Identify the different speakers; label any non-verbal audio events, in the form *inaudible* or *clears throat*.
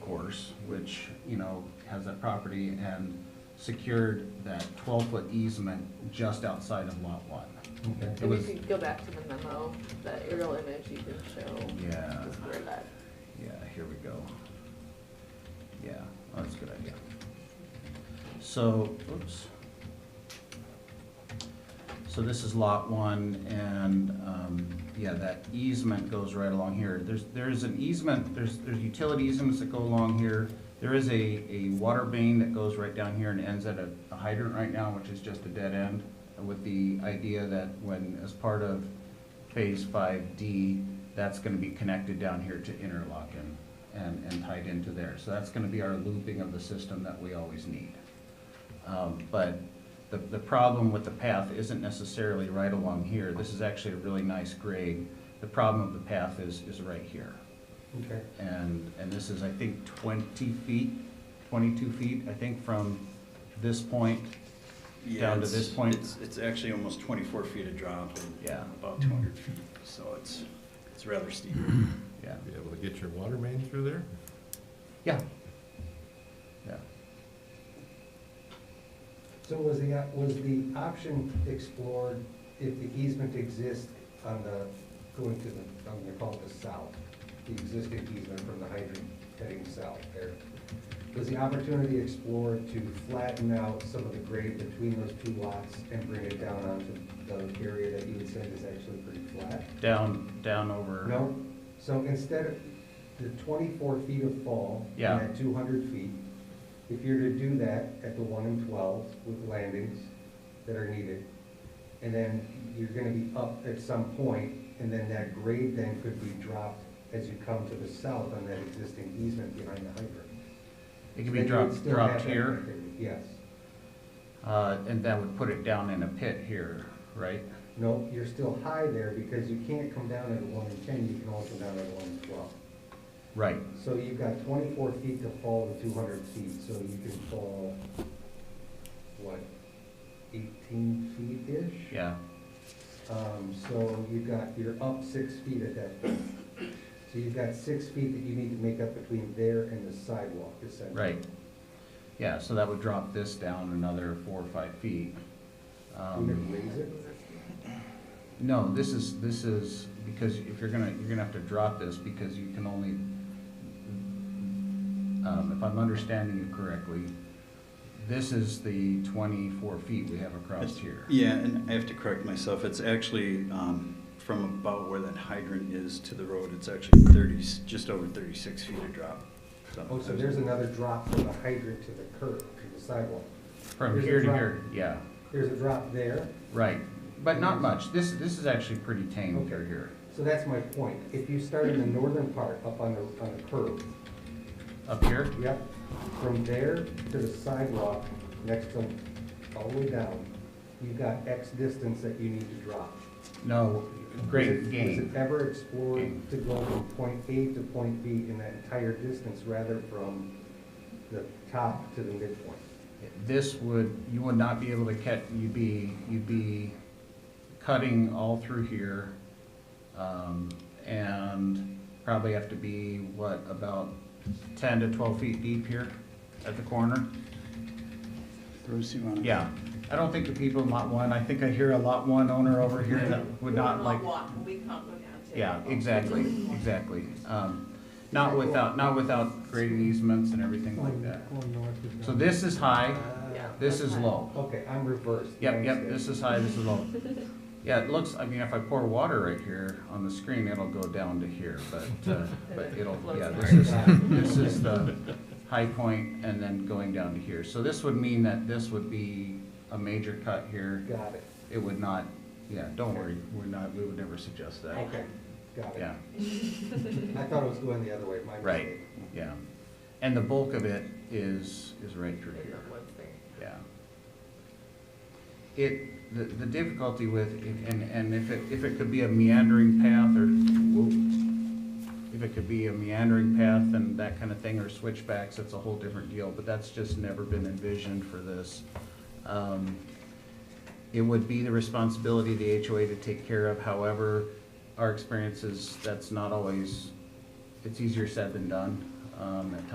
Speaker 1: course, which, you know, has that property and secured that twelve-foot easement just outside of lot one.
Speaker 2: Okay.
Speaker 1: It
Speaker 3: And
Speaker 1: was,
Speaker 3: if you go back to the memo, that aerial image, you can show
Speaker 1: yeah,
Speaker 3: just where that,
Speaker 1: yeah, here we go. Yeah, oh, that's a good idea. So, oops. So this is lot one, and, um, yeah, that easement goes right along here. There's, there's an easement, there's, there's utility easements that go along here. There is a, a water main that goes right down here and ends at a a hydrant right now, which is just a dead end, with the idea that when, as part of Phase Five D, that's gonna be connected down here to interlocking and, and tied into there. So that's gonna be our looping of the system that we always need. Um, But the, the problem with the path isn't necessarily right along here. This is actually a really nice grade. The problem of the path is, is right here.
Speaker 2: Okay.
Speaker 1: And, and this is, I think, twenty feet, twenty-two feet, I think, from this point.
Speaker 4: Yeah,
Speaker 1: down to
Speaker 4: it's-
Speaker 1: this point?
Speaker 4: It's, it's actually almost twenty-four feet of drop and
Speaker 1: Yeah.
Speaker 4: about two hundred feet, so it's, it's rather steep.
Speaker 1: Yeah,
Speaker 5: Be able to get your water main through there?
Speaker 1: yeah. Yeah.
Speaker 2: So was the, was the option explored if the easement exists on the, going to the, I'm gonna call it the south, the existing easement from the hydrant heading south there? Was the opportunity explored to flatten out some of the grade between those two lots and bring it down onto the area that you had said is actually pretty flat?
Speaker 1: Down, down over.
Speaker 2: No, so instead of the twenty-four feet of fall.
Speaker 1: Yeah.
Speaker 2: And that two hundred feet, if you're to do that at the one and twelve with landings that are needed, and then you're gonna be up at some point, and then that grade then could be dropped as you come to the south on that existing easement behind the hydrant.
Speaker 1: It can be
Speaker 2: Then you would
Speaker 1: dropped,
Speaker 2: still
Speaker 1: dropped
Speaker 2: have that
Speaker 1: here.
Speaker 2: connectivity, Yes.
Speaker 1: Uh, and that would put it down in a pit here, right?
Speaker 2: No, you're still high there because you can't come down at one and ten, you can only come down at one and twelve.
Speaker 1: Right,
Speaker 2: So you've got twenty-four feet to fall to two hundred feet, so you can fall, what, eighteen feet-ish?
Speaker 1: yeah,
Speaker 2: Um, so you've got, you're up six feet at that point. So you've got six feet that you need to make up between there and the sidewalk essentially.
Speaker 1: right. Yeah, so that would drop this down another four or five feet.
Speaker 2: You
Speaker 1: Um,
Speaker 2: can raise it,
Speaker 1: No, this is, this is, because if you're gonna, you're gonna have to drop this because you can only, um, if I'm understanding you correctly, this is the twenty-four feet we have *clears throat* across here.
Speaker 4: Yeah, and I have to correct myself, it's actually, um, from about where that hydrant is to the road, it's actually thirty, just over thirty-six feet of drop.
Speaker 2: oh, so there's another drop from the hydrant to the curb, to the sidewalk.
Speaker 1: From
Speaker 2: Here's the
Speaker 1: here to
Speaker 2: drop.
Speaker 1: here, yeah,
Speaker 2: There's a drop there,
Speaker 1: right, but not much. This, this is actually pretty tame through
Speaker 2: Okay.
Speaker 1: here.
Speaker 2: so that's my point. If you start in the northern part up on the, on the curb,
Speaker 1: Up here,
Speaker 2: Yep, from there to the sidewalk, next to, all the way down, you've got X distance that you need to drop.
Speaker 1: no,
Speaker 2: Was
Speaker 1: great
Speaker 2: it-
Speaker 1: gain.
Speaker 2: Was it ever explored
Speaker 1: Gain.
Speaker 2: to go from point A to point B in that entire distance rather from the top to the midpoint?
Speaker 1: this would, you would not be able to cut, you'd be, you'd be cutting all through here. Um, and probably have to be, what, about ten to twelve feet deep here at the corner?
Speaker 4: Bruce, you wanna?
Speaker 1: Yeah, I don't think the people in lot one, I think I hear a lot one owner over here that would not like,
Speaker 3: we can't go down to.
Speaker 1: yeah, exactly, exactly. Um, not without, not without grading easements and everything like that. So this is high,
Speaker 3: Yeah.
Speaker 1: this is low.
Speaker 2: Okay, I'm reversed.
Speaker 1: Yep,
Speaker 2: Thanks,
Speaker 1: yep,
Speaker 2: Dave.
Speaker 1: this is high, this is low. Yeah, it looks, I mean, if I pour water right here on the screen, it'll go down to here, but, uh, but it'll, yeah, this is, this is the high point and then going down to here. So this would mean that this would be a major cut here.
Speaker 2: Got it,
Speaker 1: It would not, yeah, don't worry, we're not, we would never suggest that.
Speaker 2: okay, got it.
Speaker 1: Yeah,
Speaker 2: I thought it was going the other way, my
Speaker 1: Right.
Speaker 2: mistake.
Speaker 1: yeah. And the bulk of it is, is right through here. Yeah. It, the, the difficulty with, it- and, and if it, if it could be a meandering path or, whoop, if it could be a meandering path and that kind of thing, or switchbacks, that's a whole different deal, but that's just never been envisioned for this. Um, It would be the responsibility of the HOA to take care of, however, our experiences, that's not always, it's easier said than done, um, at